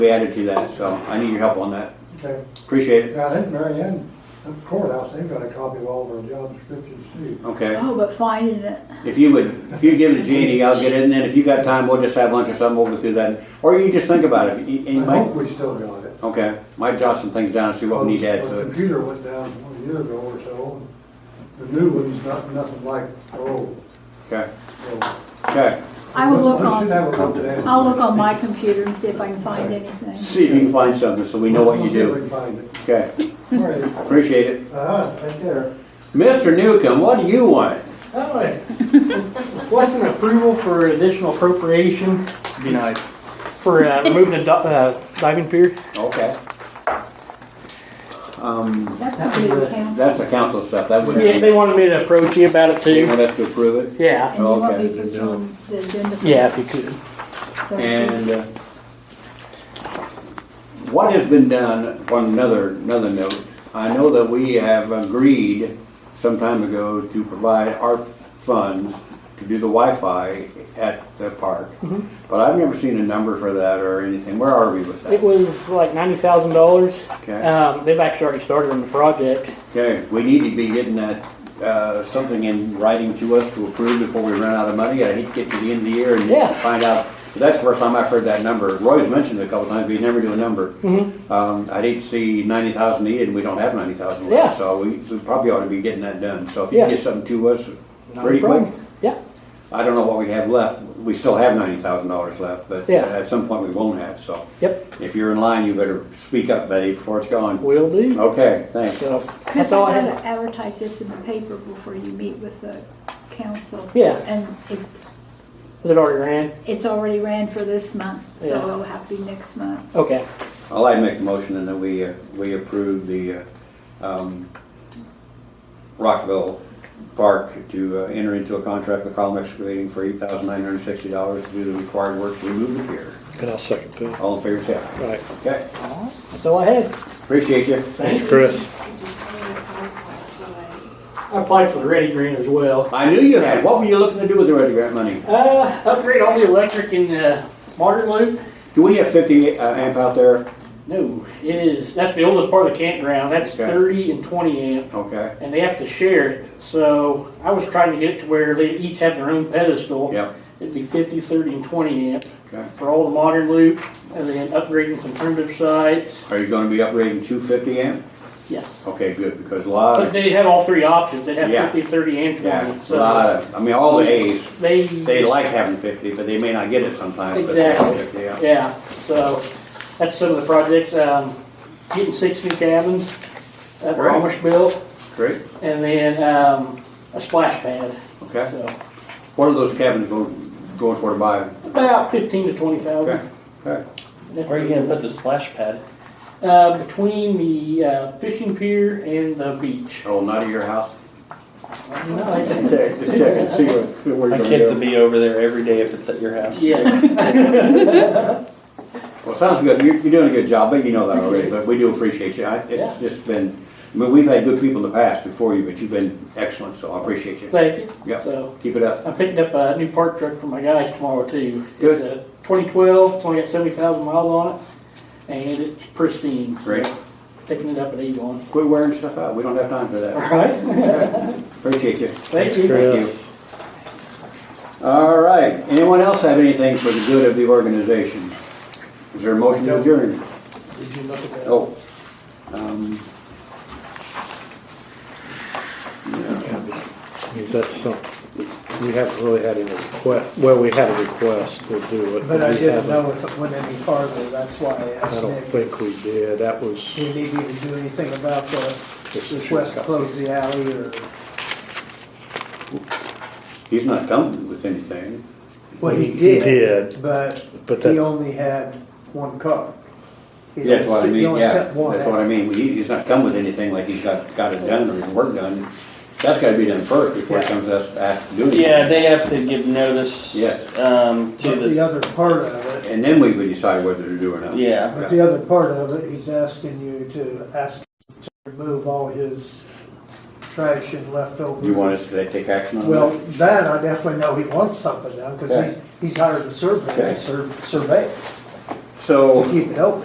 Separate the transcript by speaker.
Speaker 1: be added to that, so I need your help on that.
Speaker 2: Okay,
Speaker 1: Appreciate it.
Speaker 2: now, I think Mary Ann, the courthouse, they've got a copy of all of our job descriptions too.
Speaker 1: Okay.
Speaker 3: Oh, but finding it,
Speaker 1: If you would, if you give it to Jeannie, I'll get it, and then if you got time, we'll just have lunch or something, we'll go through that. Or you just think about it. You-
Speaker 2: I
Speaker 1: and you
Speaker 2: hope
Speaker 1: might,
Speaker 2: we still got it.
Speaker 1: okay, might jot some things down and see what we need to add
Speaker 2: Our
Speaker 1: to it.
Speaker 2: computer went down one year ago or so, and the new one's not, nothing like the old,
Speaker 1: Okay,
Speaker 2: so.
Speaker 1: okay.
Speaker 3: I will look
Speaker 2: We should
Speaker 3: on,
Speaker 2: have a look at that.
Speaker 3: I'll look on my computer and see if I can find anything.
Speaker 1: See if you can find something so we know what you do.
Speaker 2: We'll see if
Speaker 1: Okay,
Speaker 2: we can find it. All right,
Speaker 1: appreciate it.
Speaker 2: uh-huh, take care.
Speaker 1: Mr. Newcomb, what do you want?
Speaker 4: Hi. Request an approval for additional appropriation. Denied. For uh, removing the do- uh, diving pier.
Speaker 1: Okay. Um,
Speaker 3: That's not really count.
Speaker 1: that's the council stuff, that wouldn't
Speaker 4: Yeah,
Speaker 1: be,
Speaker 4: they wanted me to approach you about it
Speaker 1: they
Speaker 4: too.
Speaker 1: want us to approve it.
Speaker 4: Yeah,
Speaker 3: And you want me
Speaker 1: Okay.
Speaker 3: to put you on the agenda? for
Speaker 4: yeah, if you could.
Speaker 3: Thursday?
Speaker 1: And uh, what has been done, on another, another note, I know that we have agreed some time ago to provide ARP funds to do the Wi-Fi at the park. But I've never seen a number for that or anything. Where are we with
Speaker 4: Mm-hmm. It
Speaker 1: that?
Speaker 4: was like ninety thousand dollars.
Speaker 1: Okay.
Speaker 4: Um, they've actually already started on the project.
Speaker 1: Okay, we need to be getting that, uh, something in writing to us to approve before we run out of money. I hate to get to the end of the year
Speaker 4: Yeah.
Speaker 1: and find out. That's the first time I've heard that number. Roy's mentioned it a couple times, but he never knew a number.
Speaker 4: Mm-hmm.
Speaker 1: Um, I didn't see ninety thousand needed, and we don't have ninety thousand
Speaker 4: Yeah.
Speaker 1: left, so we, we probably ought to be getting that done. So if you can
Speaker 4: Yeah.
Speaker 1: get something to us
Speaker 4: Not a
Speaker 1: pretty quick,
Speaker 4: problem. Yeah,
Speaker 1: I don't know what we have left. We still have ninety thousand dollars left, but
Speaker 4: Yeah.
Speaker 1: at some point we won't have, so.
Speaker 4: yep,
Speaker 1: If you're in line, you better speak up, buddy, before it's gone.
Speaker 4: will do.
Speaker 1: Okay, thanks.
Speaker 4: So,
Speaker 3: Because
Speaker 4: that's
Speaker 3: I
Speaker 4: all I
Speaker 3: gotta
Speaker 4: have.
Speaker 3: advertise this in the paper before you meet with the council.
Speaker 4: Yeah.
Speaker 3: And it,
Speaker 4: Is it already ran?
Speaker 3: it's already ran for this month, so
Speaker 4: Yeah.
Speaker 3: it'll have to be next month.
Speaker 4: Okay,
Speaker 1: I'll I'd make the motion and then we, uh, we approve the, uh, um, Rockville Park to uh, enter into a contract with Column Excavating for eight thousand nine hundred sixty dollars to do the required work to remove the pier.
Speaker 5: And I'll second that.
Speaker 1: All in favor, say aye.
Speaker 5: Right,
Speaker 1: Okay,
Speaker 4: that's all I had.
Speaker 1: appreciate you.
Speaker 4: Thank you.
Speaker 5: Chris.
Speaker 4: I applied for the ready grant as well.
Speaker 1: I knew you had, what were you looking to do with the Ready Grant money?
Speaker 4: Uh, upgrade all the electric in the modern loop.
Speaker 1: Do we have fifty uh, amp out there?
Speaker 4: No, it is, that's the oldest part of the campground, that's
Speaker 1: Okay.
Speaker 4: thirty and twenty amp,
Speaker 1: Okay,
Speaker 4: and they have to share it, so I was trying to get it to where they each have their own pedestal.
Speaker 1: yep,
Speaker 4: It'd be fifty, thirty, and twenty amp
Speaker 1: okay.
Speaker 4: for all the modern loop, and then upgrading some primitive sites,
Speaker 1: Are you gonna be upgrading two fifty amp?
Speaker 4: yes.
Speaker 1: Okay, good, because a lot
Speaker 4: But
Speaker 1: of,
Speaker 4: they have all three options, they'd have
Speaker 1: Yeah.
Speaker 4: fifty, thirty, and
Speaker 1: yeah,
Speaker 4: twenty,
Speaker 1: a lot
Speaker 4: so.
Speaker 1: of, I mean, all the A's.
Speaker 4: They.
Speaker 1: They like having fifty, but they may not get it sometimes. but-
Speaker 4: Exactly.
Speaker 1: Yeah.
Speaker 4: Yeah, so that's some of the projects, um, getting six new cabins that were
Speaker 1: Right.
Speaker 4: almost built,
Speaker 1: Great,
Speaker 4: and then, um, a splash pad.
Speaker 1: okay.
Speaker 4: So
Speaker 1: What are those cabins going, going for to buy?
Speaker 4: about fifteen to twenty thousand.
Speaker 1: Okay, okay.
Speaker 5: Where are you gonna put the splash pad?
Speaker 4: Uh, between the uh, fishing pier and the beach.
Speaker 1: Oh, not at your house?
Speaker 4: No, it's-
Speaker 1: Just check, just check and see where, where
Speaker 5: My
Speaker 1: you're
Speaker 5: kids will
Speaker 1: gonna go.
Speaker 5: be over there every day if it's at your house.
Speaker 4: Yeah,
Speaker 1: Well, sounds good. You're, you're doing a good job, but you know that already, but we do appreciate you. I, it's just been, I mean, we've had good people in the past before you, but you've been excellent, so I appreciate you.
Speaker 4: thank you.
Speaker 1: Yep.
Speaker 4: So
Speaker 1: Keep it up.
Speaker 4: I'm picking up a new park truck for my guys tomorrow too.
Speaker 1: Good.
Speaker 4: It's a 2012. It's only got 70,000 miles on it, and it's pristine.
Speaker 1: Great.
Speaker 4: Picking it up at Avon.
Speaker 1: Quit wearing stuff out. We don't have time for
Speaker 4: All
Speaker 1: that.
Speaker 4: right.
Speaker 1: Appreciate you.
Speaker 4: Thank you.
Speaker 1: Thank you. All right, anyone else have anything for the good of the organization? Is there a motion to adjourn?
Speaker 2: Did you look at that?
Speaker 1: Oh. um, yeah.
Speaker 5: Because that's something, we haven't really had any request, well, we had a request to do it.
Speaker 6: But I
Speaker 5: we
Speaker 6: didn't
Speaker 5: haven't-
Speaker 6: know if it went any farther, that's why I
Speaker 5: I
Speaker 6: asked
Speaker 5: don't
Speaker 6: Nick.
Speaker 5: think we did, that was,
Speaker 6: Do you need me to do anything about
Speaker 5: This
Speaker 6: the
Speaker 5: is your
Speaker 6: request to
Speaker 5: copy.
Speaker 6: close the alley or,
Speaker 1: He's not coming with anything.
Speaker 6: well,
Speaker 5: He-
Speaker 6: he
Speaker 5: he
Speaker 6: did,
Speaker 5: did.
Speaker 6: but
Speaker 5: But
Speaker 6: he
Speaker 5: that-
Speaker 6: only had one car. He
Speaker 1: That's what I
Speaker 6: only- He
Speaker 1: mean,
Speaker 6: only
Speaker 1: yeah,
Speaker 6: sent one
Speaker 1: that's what I
Speaker 6: out.
Speaker 1: mean. He- He's not come with anything like he's got, got it done or his work done. That's gotta be done first before it
Speaker 6: Yeah.
Speaker 1: comes to us to ask to do anything.
Speaker 5: yeah, they have to give notice.
Speaker 1: Yes.
Speaker 5: Um, to
Speaker 6: But the
Speaker 5: the,
Speaker 6: other part of it,
Speaker 1: And then we would decide whether to do or not.
Speaker 5: yeah,
Speaker 6: but the other part of it, he's asking you to ask to remove all his trash and leftover.
Speaker 1: You want us to take action on that?
Speaker 6: Well, that, I definitely know he wants something now, because
Speaker 1: Okay.
Speaker 6: he's, he's hired a surveyor,
Speaker 1: Okay.
Speaker 6: to sur- survey.
Speaker 1: So.
Speaker 6: to keep it open.